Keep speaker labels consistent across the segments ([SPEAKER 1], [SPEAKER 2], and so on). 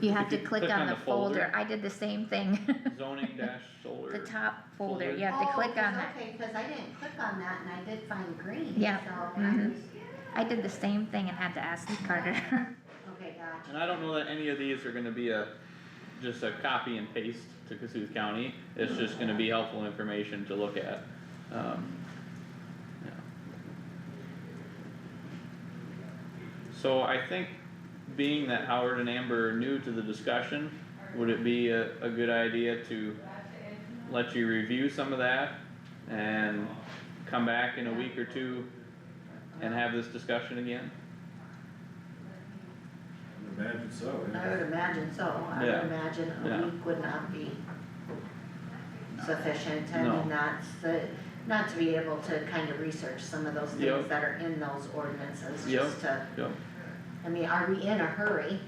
[SPEAKER 1] You have
[SPEAKER 2] If
[SPEAKER 1] to
[SPEAKER 2] you
[SPEAKER 1] click on the folder, I did the same thing.
[SPEAKER 2] Zoning dash
[SPEAKER 1] The
[SPEAKER 2] solar,
[SPEAKER 1] top folder,
[SPEAKER 2] folder.
[SPEAKER 1] you have to click
[SPEAKER 3] Oh, 'cause-
[SPEAKER 1] on that,
[SPEAKER 3] okay, cause I didn't click on that and I did find green, so
[SPEAKER 1] Yeah,
[SPEAKER 3] I
[SPEAKER 1] mhm.
[SPEAKER 3] was,
[SPEAKER 1] I did the same thing and had to ask Carter.
[SPEAKER 3] okay, gotcha.
[SPEAKER 2] and I don't know that any of these are gonna be a, just a copy and paste to Cassuth County, it's just gonna be helpful information to look at. Um, yeah. So I think, being that Howard and Amber are new to the discussion, would it be a, a good idea to let you review some of that? And come back in a week or two and have this discussion again?
[SPEAKER 4] Imagine so,
[SPEAKER 3] I would
[SPEAKER 4] yeah.
[SPEAKER 3] imagine so, I
[SPEAKER 2] Yeah.
[SPEAKER 3] would imagine
[SPEAKER 2] Yeah.
[SPEAKER 3] a week would not be sufficient
[SPEAKER 2] No.
[SPEAKER 3] and not the, not to be able to kind of research some of those
[SPEAKER 2] Yep.
[SPEAKER 3] things that are in those ordinances,
[SPEAKER 2] Yep.
[SPEAKER 3] just to,
[SPEAKER 2] Yep.
[SPEAKER 3] I mean, are we in a hurry?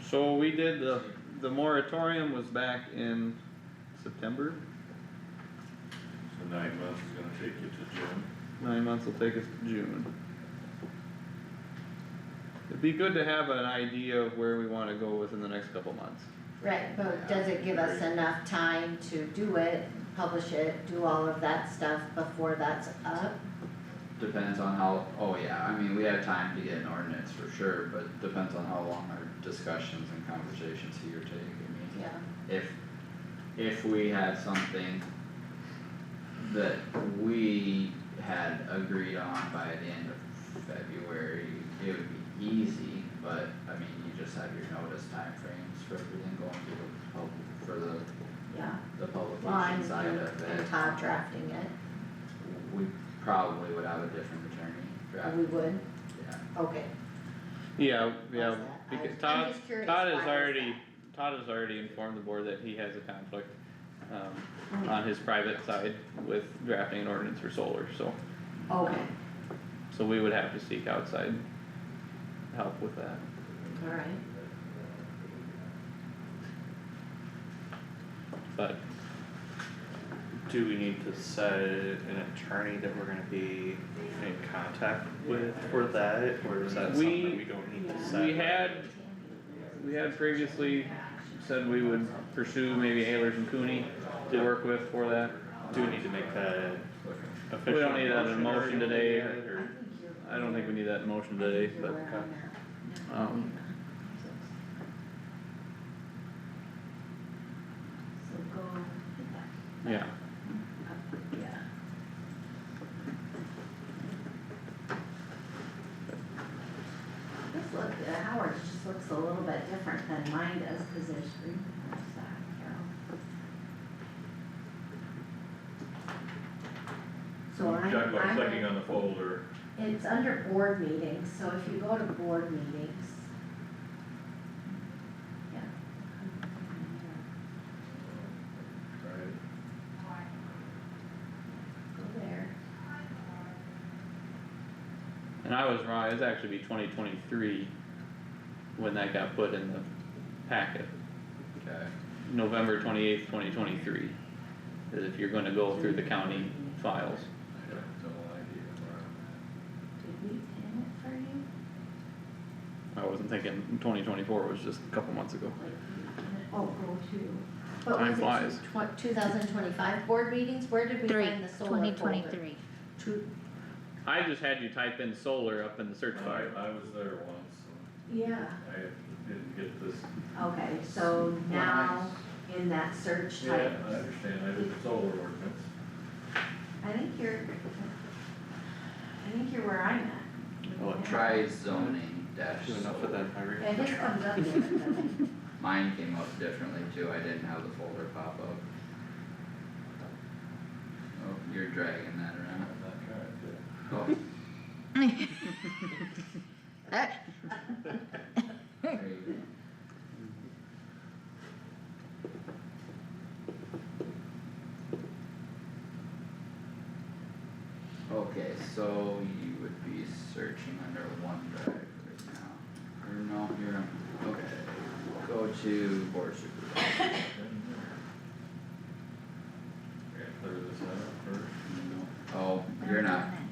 [SPEAKER 2] So we did the, the moratorium was back in September,
[SPEAKER 4] So nine months is gonna take you to June.
[SPEAKER 2] nine months will take us to June. It'd be good to have an idea of where we wanna go within the next couple months.
[SPEAKER 3] Right, but does it give us enough time to do it, publish it, do all of that stuff before that's up?
[SPEAKER 5] Depends on how, oh yeah, I mean, we have time to get an ordinance for sure, but depends on how long our discussions and conversations here take, I mean.
[SPEAKER 3] Yeah,
[SPEAKER 5] If, if we had something that we had agreed on by the end of February, it would be easy, but I mean, you just have your notice timeframes for everything going through the public,
[SPEAKER 3] yeah,
[SPEAKER 5] for the, the
[SPEAKER 3] well, I'm,
[SPEAKER 5] publication side of it.
[SPEAKER 3] I'm Todd drafting it,
[SPEAKER 5] We probably would have a different attorney draft,
[SPEAKER 3] we would,
[SPEAKER 5] yeah.
[SPEAKER 3] okay,
[SPEAKER 2] Yeah, yeah,
[SPEAKER 3] How's that? I-
[SPEAKER 2] because
[SPEAKER 3] I'm
[SPEAKER 2] Todd,
[SPEAKER 3] just curious,
[SPEAKER 2] Todd
[SPEAKER 3] why
[SPEAKER 2] has
[SPEAKER 3] is
[SPEAKER 2] already, Todd has already informed the board that he has a conflict, um,
[SPEAKER 3] Mm.
[SPEAKER 2] on his private side with drafting an ordinance for solar, so,
[SPEAKER 3] okay,
[SPEAKER 2] so we would have to seek outside help with that.
[SPEAKER 3] alright.
[SPEAKER 2] But
[SPEAKER 6] Do we need to set an attorney that we're gonna be in contact with for that, or is that
[SPEAKER 2] We-
[SPEAKER 6] something we don't need to set?
[SPEAKER 2] we had, we had previously said we would pursue maybe Ayers and Cooney to work with for that.
[SPEAKER 6] Do we need to make that official?
[SPEAKER 2] We don't need that in motion
[SPEAKER 6] motion or anything
[SPEAKER 2] today.
[SPEAKER 6] yet, or-
[SPEAKER 2] I don't think we need that in motion today,
[SPEAKER 3] You're
[SPEAKER 2] but,
[SPEAKER 3] aware on that.
[SPEAKER 2] um,
[SPEAKER 3] So go,
[SPEAKER 2] yeah,
[SPEAKER 3] yeah. This look, uh, Howard's just looks a little bit different than mine does, cause there's green on the side, Carol. So I'm,
[SPEAKER 4] Talk about
[SPEAKER 3] I'm
[SPEAKER 4] clicking on the folder,
[SPEAKER 3] It's under board meetings, so if you go to board meetings. Yeah.
[SPEAKER 4] right?
[SPEAKER 3] Go there.
[SPEAKER 2] and I was wrong, it's actually be twenty twenty-three when that got put in the packet,
[SPEAKER 5] Okay,
[SPEAKER 2] November twenty-eighth, twenty twenty-three. Is if you're gonna go through the county files.
[SPEAKER 4] I have no idea where I'm
[SPEAKER 3] Did we pin it for you?
[SPEAKER 2] I wasn't thinking twenty twenty-four was just a couple months ago.
[SPEAKER 3] Like, Oh, go to. What
[SPEAKER 2] Time flies.
[SPEAKER 3] was it, two thousand twenty-five board meetings, where did we
[SPEAKER 1] Three,
[SPEAKER 3] find the solar folder?
[SPEAKER 1] twenty twenty-three.
[SPEAKER 3] Two,
[SPEAKER 2] I just had you type in solar up in the search bar.
[SPEAKER 4] at. I, I was there once, and
[SPEAKER 3] yeah,
[SPEAKER 4] I didn't get this,
[SPEAKER 3] okay, so now in that search
[SPEAKER 4] yeah,
[SPEAKER 3] type,
[SPEAKER 4] I understand, I did the solar ordinance.
[SPEAKER 3] I think you're, I think you're where I'm at.
[SPEAKER 6] Well,
[SPEAKER 5] Oh, try zoning dash
[SPEAKER 6] Do enough of
[SPEAKER 5] solar.
[SPEAKER 6] that, Maria?
[SPEAKER 3] Yeah, this comes up different.
[SPEAKER 5] Mine came up differently too, I didn't have the folder pop up. Oh, you're dragging that
[SPEAKER 4] I'm
[SPEAKER 5] around,
[SPEAKER 4] not trying to,
[SPEAKER 5] oh, there you go. Okay, so you would be searching under OneDrive right now, or no, you're, on- okay, go to board supervisor,
[SPEAKER 4] I gotta clear this out first.
[SPEAKER 5] oh, you're not